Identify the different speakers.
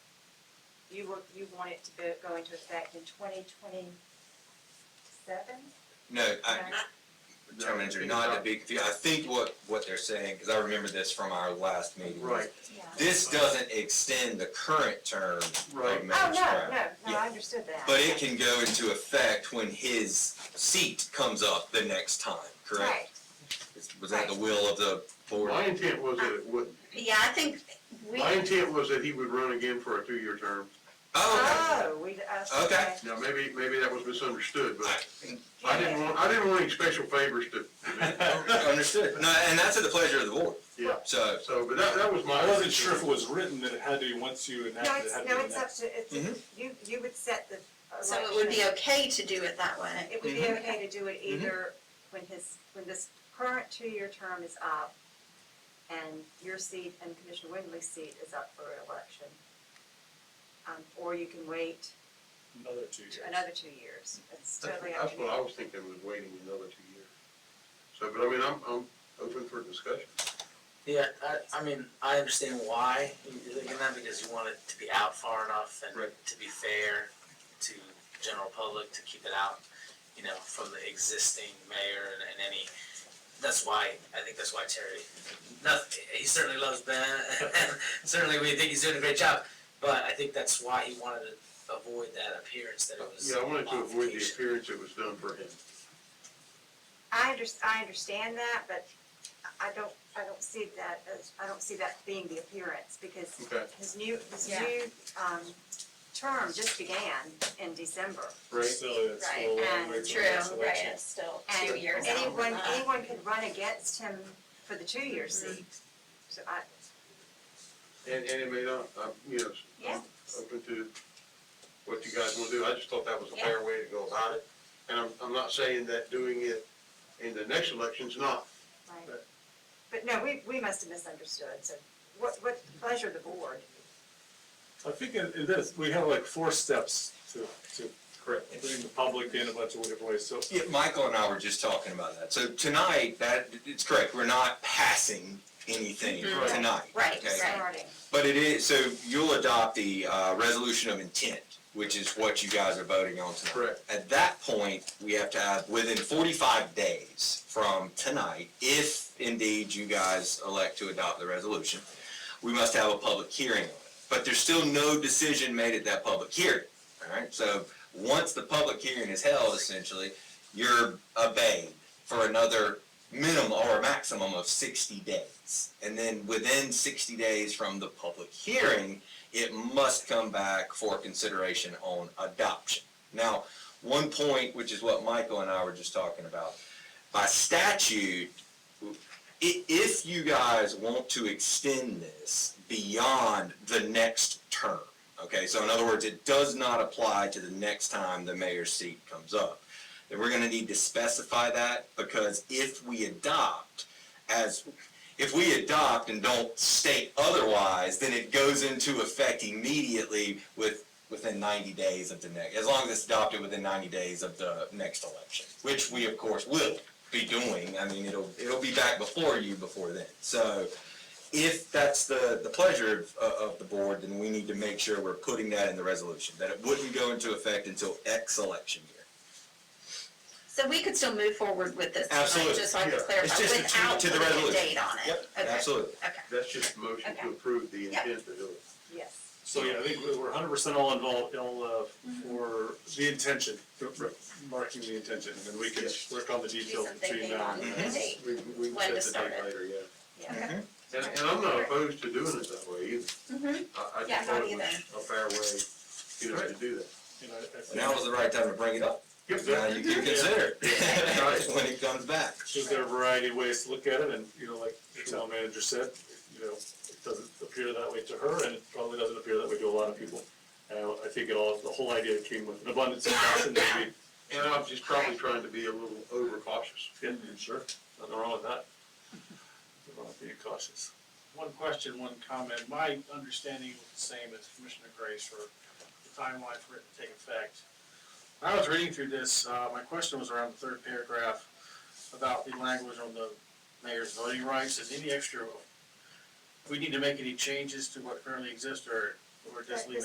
Speaker 1: you were, you want it to go, go into effect in twenty twenty-seven?
Speaker 2: No, I, town manager, not to be confused, I think what, what they're saying, because I remember this from our last meeting. was
Speaker 3: Right,
Speaker 1: Yeah.
Speaker 2: This doesn't extend the current term of
Speaker 3: Right.
Speaker 2: Mayor
Speaker 1: Oh,
Speaker 2: Sprout.
Speaker 1: no, no, no,
Speaker 2: Yeah.
Speaker 1: I understood that.
Speaker 2: But it can go into effect when his seat comes up the next time, correct?
Speaker 1: Right,
Speaker 2: Is- Was that the will of the board?
Speaker 3: my intent was that it wouldn't.
Speaker 4: Yeah, I think we,
Speaker 3: My intent was that he would run again for a two-year term.
Speaker 2: Oh,
Speaker 1: oh, we, uh,
Speaker 2: Okay.
Speaker 1: okay.
Speaker 3: Now, maybe, maybe that was misunderstood,
Speaker 1: Oh.
Speaker 2: okay.
Speaker 3: but I didn't want, I didn't want any special favors to,
Speaker 2: I- Understood. No, and that's at the pleasure of the board.
Speaker 3: yeah.
Speaker 2: So,
Speaker 3: So, but that, that was my.
Speaker 5: I wasn't sure if it was written that it had to be once you enact
Speaker 1: No,
Speaker 5: it, it
Speaker 1: it's,
Speaker 5: had to
Speaker 1: no,
Speaker 5: be
Speaker 1: it's up
Speaker 5: enacted.
Speaker 1: to, it's,
Speaker 2: Mhm.
Speaker 1: you, you would set the
Speaker 4: so it would be
Speaker 1: election.
Speaker 4: okay to do it that way.
Speaker 1: It would be
Speaker 2: Mhm.
Speaker 1: okay to do it either when his, when this current two-year term is up and your seat and Commissioner Windley's seat is up for election. Um, or you can wait
Speaker 5: Another two years.
Speaker 1: another two years. It's
Speaker 3: That's
Speaker 1: totally up
Speaker 3: that's
Speaker 1: to you.
Speaker 3: what I was thinking, was waiting another two years. So, but I mean, I'm, I'm open for discussion.
Speaker 6: Yeah, I, I mean, I understand why you're thinking that because you want it to be out far enough and
Speaker 3: Right.
Speaker 6: to be fair to general public, to keep it out, you know, from the existing mayor and, and any, that's why, I think that's why Terry, not, he certainly loves Ben, and certainly we think he's doing a great job, but I think that's why he wanted to avoid that appearance that it was.
Speaker 3: Yeah, I wanted to avoid the
Speaker 6: modification.
Speaker 3: appearance it was done for him.
Speaker 1: I under, I understand that, but I don't, I don't see that as, I don't see that being the appearance because
Speaker 3: Okay,
Speaker 1: his new, his
Speaker 4: Yeah.
Speaker 1: new, um, term just began in December.
Speaker 3: right?
Speaker 5: Still, it's a
Speaker 4: Right,
Speaker 5: little long
Speaker 1: and
Speaker 5: way till
Speaker 4: True,
Speaker 5: the next
Speaker 4: right,
Speaker 5: election.
Speaker 4: it's still two
Speaker 1: And
Speaker 4: years out.
Speaker 1: anyone,
Speaker 4: Uh,
Speaker 1: anyone could run against him for the two-year
Speaker 4: Mm-hmm.
Speaker 1: seat. So I,
Speaker 3: And, and it may not, I'm, you know,
Speaker 1: yeah,
Speaker 3: open to what you guys want to do. I just thought that was a fair way to go about it. And I'm, I'm not saying that doing it in the next election's not.
Speaker 1: right. But no, we, we must have misunderstood. So what, what pleasure of the board?
Speaker 5: I think in, in this, we have like four steps to, to
Speaker 3: Correct.
Speaker 5: bring the public in a bunch of different ways, so.
Speaker 2: yeah, Michael and I were just talking about that. So tonight, that, it's correct, we're not passing anything
Speaker 4: Mhm. Right.
Speaker 2: tonight.
Speaker 4: Right,
Speaker 2: okay?
Speaker 4: right.
Speaker 1: Starting.
Speaker 2: But it is, so you'll adopt the, uh, resolution of intent, which is what you guys are voting on tonight.
Speaker 3: Correct.
Speaker 2: At that point, we have to have, within forty-five days from tonight, if indeed you guys elect to adopt the resolution, we must have a public hearing on it. But there's still no decision made at that public hearing, all right? So, once the public hearing is held, essentially, you're obeyed for another minimum or a maximum of sixty days. And then within sixty days from the public hearing, it must come back for consideration on adoption. Now, one point, which is what Michael and I were just talking about, by statute, i- if you guys want to extend this beyond the next term, okay, so in other words, it does not apply to the next time the mayor's seat comes up then we're gonna need to specify that, because if we adopt as, if we adopt and don't state otherwise, then it goes into effect immediately with, within ninety days of the next, as long as it's adopted within ninety days of the next election, which we of course will be doing, I mean, it'll, it'll be back before you before then, so if that's the, the pleasure of, of the board, then we need to make sure we're putting that in the resolution, that it wouldn't go into effect until X election year.
Speaker 4: So we could still move forward with this, tonight,
Speaker 2: Absolutely,
Speaker 4: just so I can
Speaker 3: yeah.
Speaker 4: clarify,
Speaker 2: It's just a
Speaker 4: without
Speaker 2: change to the
Speaker 4: putting a
Speaker 2: resolution.
Speaker 4: date on it.
Speaker 2: Yep,
Speaker 4: Okay.
Speaker 2: absolutely.
Speaker 3: That's just a motion
Speaker 4: Okay.
Speaker 3: to approve the
Speaker 4: Yep.
Speaker 3: intent to do it.
Speaker 1: Yes.
Speaker 5: So, yeah, I think we- we're hundred percent all involved, all, uh,
Speaker 1: Mm-hmm.
Speaker 5: for the intention, for- for marking the intention, and then we can
Speaker 3: Yes.
Speaker 5: work on the
Speaker 4: Do
Speaker 5: details
Speaker 4: some
Speaker 5: between
Speaker 4: thinking
Speaker 5: now
Speaker 4: on
Speaker 5: and
Speaker 4: the
Speaker 2: Mhm.
Speaker 5: then.
Speaker 4: date.
Speaker 3: We, we can
Speaker 4: When to
Speaker 3: set the
Speaker 4: start
Speaker 3: date
Speaker 4: it.
Speaker 3: later, yeah.
Speaker 1: Yeah.
Speaker 2: Mm-hmm.
Speaker 3: And, and I'm not opposed to doing it that way either.
Speaker 4: Mhm.
Speaker 3: I, I
Speaker 4: Yeah,
Speaker 3: just thought
Speaker 4: not
Speaker 3: it was a fair way, you know, to do that.
Speaker 5: You know, I think-
Speaker 2: Now is the right time to bring it up. Now you can consider it when it comes back.
Speaker 5: There's there are a variety of ways to look at it, and, you know, like the town manager said, you know, it doesn't appear that way to her, and it probably doesn't appear that way to a lot of people. And I think it all, the whole idea came with an abundance of caution, that
Speaker 3: And I'm just probably trying to be a little over cautious.
Speaker 5: we, yeah, sure, nothing wrong with that. Nothing wrong with Being cautious.
Speaker 7: One question, one comment. My understanding was the same as Commissioner Grace for the timeline for it to take effect. When I was reading through this, uh, my question was around the third paragraph about the language on the mayor's voting rights. Is any extra, we need to make any changes to what currently exists or, or just leave it?